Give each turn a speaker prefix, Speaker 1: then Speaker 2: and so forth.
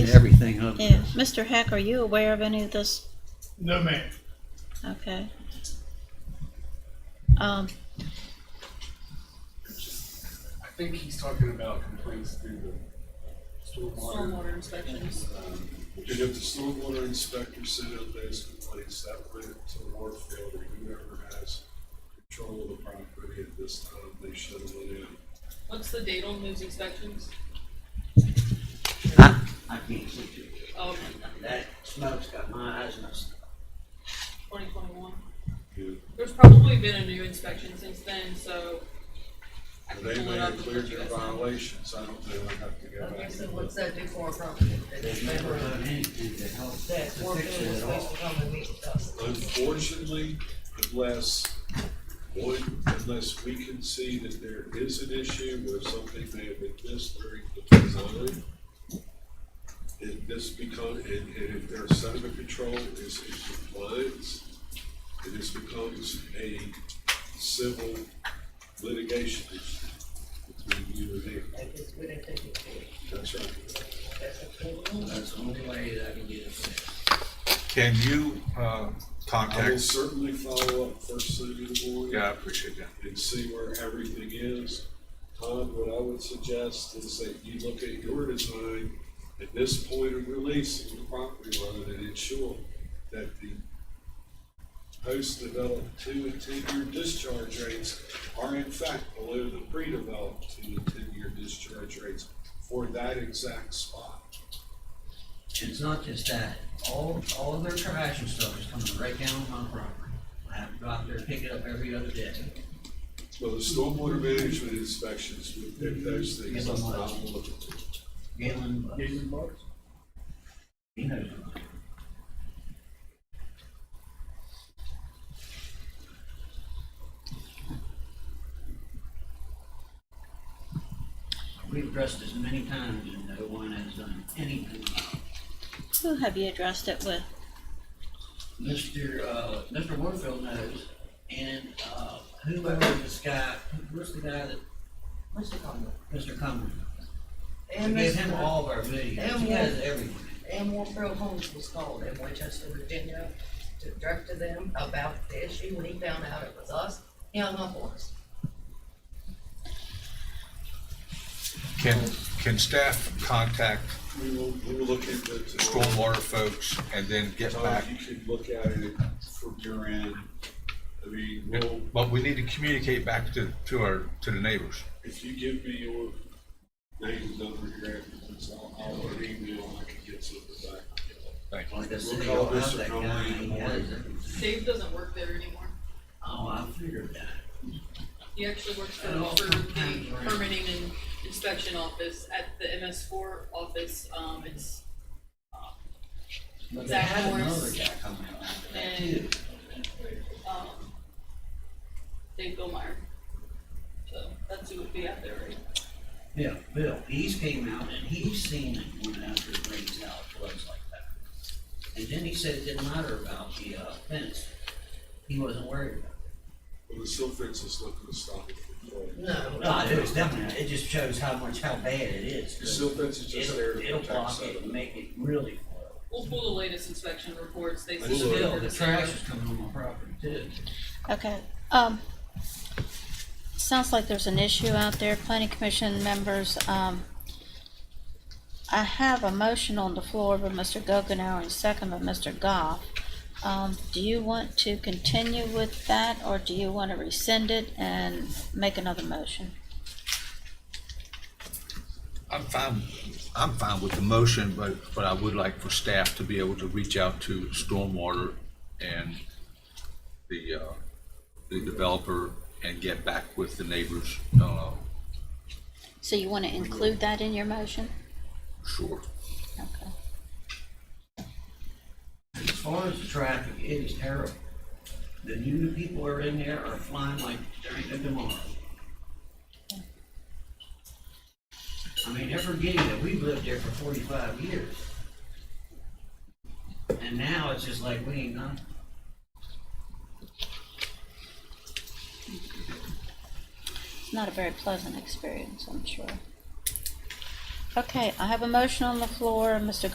Speaker 1: and everything, huh?
Speaker 2: Yeah, Mr. Heck, are you aware of any of this?
Speaker 3: No, ma'am.
Speaker 2: Okay. Um,
Speaker 4: I think he's talking about complaints through the stormwater.
Speaker 5: stormwater inspections.
Speaker 4: Um,
Speaker 6: And if the stormwater inspector sent out those complaints, that went to Warfield or whoever has control of the property at this time, they should have let in.
Speaker 5: What's the date on those inspections?
Speaker 1: I, I can't see you.
Speaker 5: Oh,
Speaker 1: That smoke's got my eyes messed up.
Speaker 5: twenty twenty-one.
Speaker 6: Yeah.
Speaker 5: There's probably been a new inspection since then, so. I can
Speaker 6: They
Speaker 5: pull
Speaker 6: may
Speaker 5: it up
Speaker 6: have
Speaker 5: and let
Speaker 6: cleared
Speaker 5: you
Speaker 6: their
Speaker 5: guys know.
Speaker 6: violations, I don't know, I'd have to go
Speaker 7: Okay,
Speaker 6: back.
Speaker 7: so what's that do for our property? That
Speaker 1: They've never done anything to help to
Speaker 7: that
Speaker 1: fix
Speaker 7: Warfield
Speaker 1: it
Speaker 7: was
Speaker 1: at
Speaker 7: supposed
Speaker 1: all.
Speaker 7: to come and meet with us.
Speaker 6: Unfortunately, unless, one, unless we can see that there is an issue where something may have been missed during the design, and this become, and, and if their sediment control is in compliance, then this becomes a civil litigation issue between you and them.
Speaker 7: That is what it did.
Speaker 6: That's right.
Speaker 7: That's a cool.
Speaker 1: That's the only way that I can get it fixed.
Speaker 8: Can you, uh,
Speaker 6: I will
Speaker 8: contact,
Speaker 6: certainly follow up first thing in the morning.
Speaker 8: yeah, I appreciate that.
Speaker 6: and see where everything is. Tom, what I would suggest is that you look at your design at this point of release of the property line and ensure that the post-developed two and ten-year discharge rates are in fact below the pre-developed two and ten-year discharge rates for that exact spot.
Speaker 1: It's not just that, all, all of their trash and stuff is coming right down on my property. I have to go out there and pick it up every other day.
Speaker 6: So the stormwater management inspections would pick those things up. I'm looking for.
Speaker 1: Galen, uh,
Speaker 3: Galen Marks?
Speaker 1: he knows. We've addressed this many times and no one has done anything about it.
Speaker 2: who have you addressed it with?
Speaker 1: Mr. Uh, Mr. Warfield knows, and, uh, whoever this guy, who's the guy that,
Speaker 7: Mr. Conway.
Speaker 1: Mr. Cumberland? We
Speaker 7: And
Speaker 1: gave him
Speaker 7: Mr.
Speaker 1: all of our videos,
Speaker 7: and
Speaker 1: he has
Speaker 7: Warfield.
Speaker 1: everything.
Speaker 7: And Warfield Homes was called in Winchester, Virginia, to direct to them about the issue. When he found out it was us, he hung up on us.
Speaker 8: Can, can staff contact
Speaker 6: We will, we will look at the.
Speaker 8: stormwater folks and then get
Speaker 6: Tom,
Speaker 8: back?
Speaker 6: you could look at it from your end. I mean, we'll,
Speaker 8: But we need to communicate back to, to our, to the neighbors.
Speaker 6: if you give me your names over here after this, I'll, I'll let email, and I can get something back.
Speaker 8: Thank you.
Speaker 1: Like I said,
Speaker 6: We'll
Speaker 1: you
Speaker 6: call
Speaker 1: don't have
Speaker 6: Mr.
Speaker 1: that
Speaker 6: Conway
Speaker 1: guy,
Speaker 6: in the
Speaker 1: he
Speaker 6: morning.
Speaker 1: has everything.
Speaker 5: Dave doesn't work there anymore.
Speaker 1: Oh, I figured that.
Speaker 5: He actually works for,
Speaker 1: Oh,
Speaker 5: for
Speaker 1: okay,
Speaker 5: the
Speaker 1: right.
Speaker 5: permitting and inspection office at the MS four office. Um, it's,
Speaker 1: But they
Speaker 5: Zach
Speaker 1: had another
Speaker 5: Morris.
Speaker 1: guy coming out after that
Speaker 5: And-
Speaker 1: too.
Speaker 5: um, Dave Gilmeyer. So that's who would be out there, right?
Speaker 1: Yeah, Bill, he's came out and he's seen it when after it rains out, floods like that. And then he said it didn't matter about the, uh, fence, he wasn't worried about it.
Speaker 6: Well, the silt fence is not gonna stop it from falling.
Speaker 7: No.
Speaker 1: No, I do, it's definitely, it just shows how much, how bad it is.
Speaker 6: The silt fence is just there
Speaker 1: It'll,
Speaker 6: to
Speaker 1: it'll
Speaker 6: protect
Speaker 1: block it and
Speaker 6: sediment.
Speaker 1: make it really flow.
Speaker 5: We'll pull the latest inspection reports. They
Speaker 6: But
Speaker 1: But
Speaker 5: submit
Speaker 1: still,
Speaker 5: for
Speaker 1: the
Speaker 5: zero.
Speaker 1: trash is coming on my property too.
Speaker 2: Okay, um, sounds like there's an issue out there, planning commission members, um, I have a motion on the floor by Mr. Gokenhour and second by Mr. Goff. Um, do you want to continue with that, or do you want to rescind it and make another motion?
Speaker 8: I'm fine, I'm fine with the motion, but, but I would like for staff to be able to reach out to stormwater and the, uh, the developer and get back with the neighbors, uh,
Speaker 2: So you want to include that in your motion?
Speaker 8: sure.
Speaker 2: Okay.
Speaker 1: As far as the traffic, it is terrible. The new people are in there are flying like there ain't no tomorrow. I mean, they're forgetting that we've lived there for forty-five years. And now it's just like we ain't done.
Speaker 2: It's not a very pleasant experience, I'm sure. Okay, I have a motion on the floor, Mr.